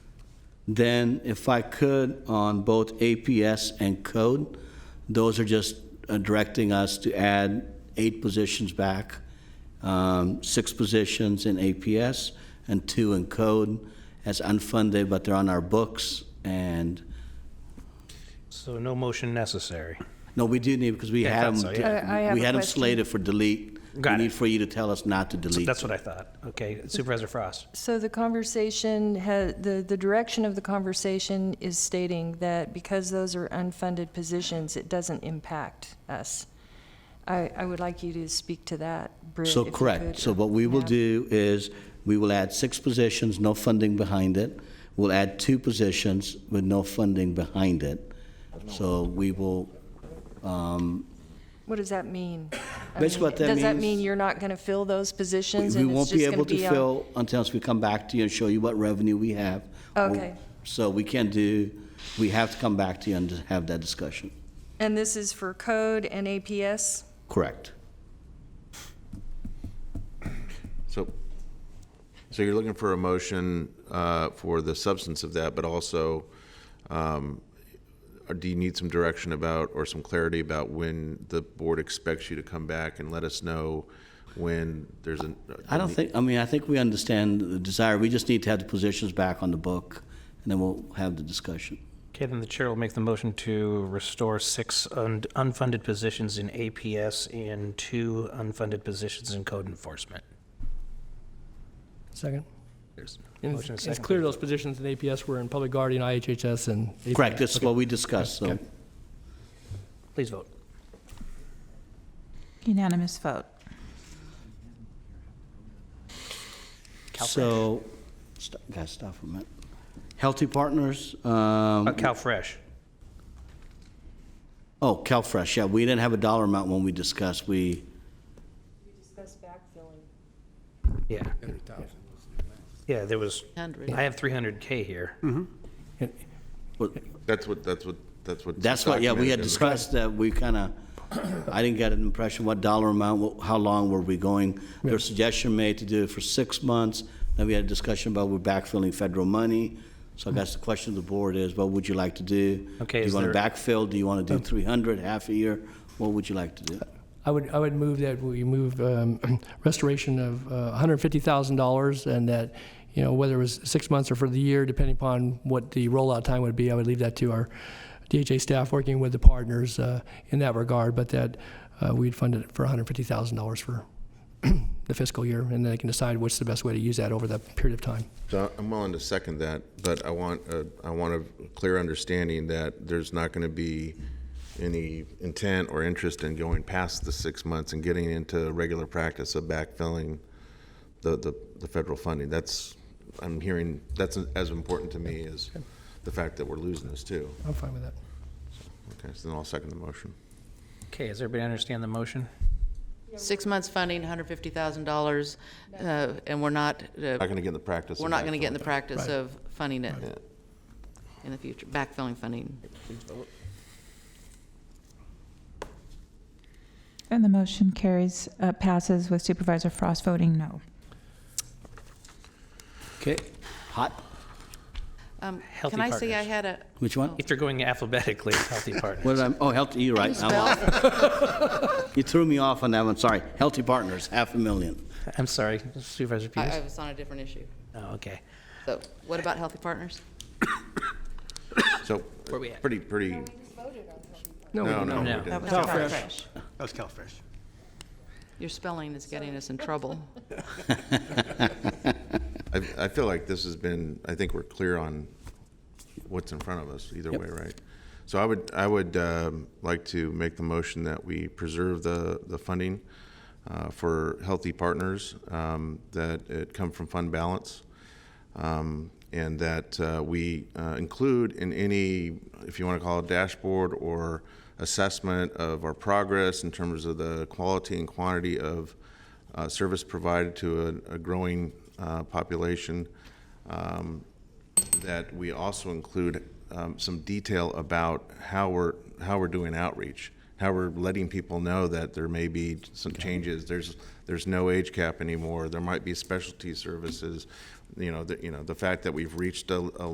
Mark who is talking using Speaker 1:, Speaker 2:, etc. Speaker 1: Then if I could, on both APS and code, those are just uh, directing us to add eight positions back, um, six positions in APS and two in code as unfunded, but they're on our books. And,
Speaker 2: So no motion necessary.
Speaker 1: no, we do need, because we
Speaker 2: Yeah, I
Speaker 1: had
Speaker 2: thought
Speaker 1: them.
Speaker 2: so, yeah.
Speaker 3: I- I have
Speaker 1: We
Speaker 3: a
Speaker 1: had them
Speaker 3: question.
Speaker 1: slated for delete.
Speaker 2: Got
Speaker 1: We
Speaker 2: it.
Speaker 1: need for you to tell us not to delete.
Speaker 2: That's what I thought. Okay, Supervisor Frost.
Speaker 3: So the conversation, ha- the, the direction of the conversation is stating that because those are unfunded positions, it doesn't impact us. I, I would like you to speak to that, Britt.
Speaker 1: So
Speaker 3: if you could.
Speaker 1: correct. So what we will
Speaker 3: Yeah.
Speaker 1: do is, we will add six positions, no funding behind it. We'll add two positions with no funding behind it. So we will,
Speaker 3: What does that mean? I
Speaker 1: Basically
Speaker 3: mean,
Speaker 1: what that
Speaker 3: Does that
Speaker 1: means-
Speaker 3: mean you're not going to fill those
Speaker 1: we
Speaker 3: positions?
Speaker 1: we
Speaker 3: and it's
Speaker 1: won't be
Speaker 3: just gonna
Speaker 1: able to
Speaker 3: on-
Speaker 1: fill until we come back to you and show you what revenue we have.
Speaker 3: Okay.
Speaker 1: So we can do, we have to come back to you and just have that discussion.
Speaker 3: And this is for code and APS?
Speaker 1: Correct.
Speaker 4: So, so you're looking for a motion uh, for the substance of that, but also, um, or do you need some direction about, or some clarity about when the board expects you to come back and let us know when there's an? uh,
Speaker 1: I don't think, I mean, I think we understand the desire. We just need to have the positions back on the book, and then we'll have the discussion.
Speaker 2: Okay, then the chair will make the motion to restore six un- unfunded positions in APS and two unfunded positions in code enforcement.
Speaker 5: Second.
Speaker 2: There's a
Speaker 5: And
Speaker 2: motion and
Speaker 5: it's,
Speaker 2: a
Speaker 5: it's
Speaker 2: second.
Speaker 5: clear those positions in APS were in Public Guardian, IHHS, and. APS.
Speaker 1: Correct, that's what we discussed, so.
Speaker 5: Okay.
Speaker 2: Please vote.
Speaker 6: Unanimous vote.
Speaker 2: Calfred.
Speaker 1: So, st- guys, stop for a minute. Healthy Partners, um,
Speaker 2: Uh, Cal Fresh.
Speaker 1: oh, CalFresh, yeah, we didn't have a dollar amount when we discussed, we,
Speaker 2: Yeah. Yeah, there was, I have 300K here.
Speaker 1: well,
Speaker 4: That's what, that's what, that's what.
Speaker 1: that's what, yeah, we had
Speaker 4: documented in
Speaker 1: discussed that, we kind of, I didn't get an impression what dollar amount, wh- how long were we going? Their suggestion made to do it for six months, then we had a discussion about we're backfilling federal money, so I guess the question of the board is, what would you like to do?
Speaker 2: Okay,
Speaker 1: Do
Speaker 2: is
Speaker 1: you want to
Speaker 2: there- Oh.
Speaker 1: backfill, do you want to do 300, half a year, what would you like to do?
Speaker 5: I would, I would move that we move um, restoration of uh, $150,000 and that, you know, whether it was six months or for the year, depending upon what the rollout time would be, I would leave that to our DHA staff working with the partners uh, in that regard, but that uh, we'd fund it for $150,000 for the fiscal year, and then they can decide what's the best way to use that over that period of time.
Speaker 4: So I'm willing to second that, but I want, a- I want a clear understanding that there's not going to be any intent or interest in going past the six months and getting into regular practice of backfilling the, the, the federal funding. That's, I'm hearing, that's as important to me as the fact that we're losing this too.
Speaker 5: I'm fine with that.
Speaker 4: Okay, so then I'll second the motion.
Speaker 2: Okay, does everybody understand the motion?
Speaker 7: Six months funding, $150,000, uh, and we're not, uh,
Speaker 4: Not going to get in the practice. of
Speaker 7: we're not going to get in the
Speaker 4: backfilling.
Speaker 7: practice
Speaker 5: Right.
Speaker 7: of funding it
Speaker 4: Yeah.
Speaker 7: in the future, backfilling funding.
Speaker 6: And the motion carries, uh, passes with Supervisor Frost voting no.
Speaker 1: Okay, hot,
Speaker 7: Um,
Speaker 2: Healthy
Speaker 7: Can I say I
Speaker 2: Partners.
Speaker 7: had a,
Speaker 1: which one?
Speaker 2: If you're going alphabetically, Healthy Partners.
Speaker 1: What did I, oh, healthy, you're right. I'm off. You threw me off on that one, sorry. Healthy Partners, half a million.
Speaker 2: I'm sorry, Supervisor
Speaker 7: I I
Speaker 2: Peters?
Speaker 7: was on a different issue.
Speaker 2: Oh, okay.
Speaker 7: So what about Healthy Partners?
Speaker 4: So.
Speaker 2: Where we at?
Speaker 4: Pretty, pretty. No, no, we
Speaker 2: No.
Speaker 4: didn't.
Speaker 7: Calfresh.
Speaker 8: That was CalFresh.
Speaker 7: Your spelling is getting us in trouble.
Speaker 4: I, I feel like this has been, I think we're clear on what's in front of us either way, right? So I would, I would um, like to make the motion that we preserve the, the funding uh, for Healthy Partners, um, that it come from fund balance, um, and that uh, we uh, include in any, if you want to call it dashboard or assessment of our progress in terms of the quality and quantity of uh, service provided to a, a growing uh, population, um, that we also include um, some detail about how we're how we're doing outreach, how we're letting people know that there may be some changes. There's there's no age cap anymore. There might be specialty services. You know, the, you know the fact that we've reached a, a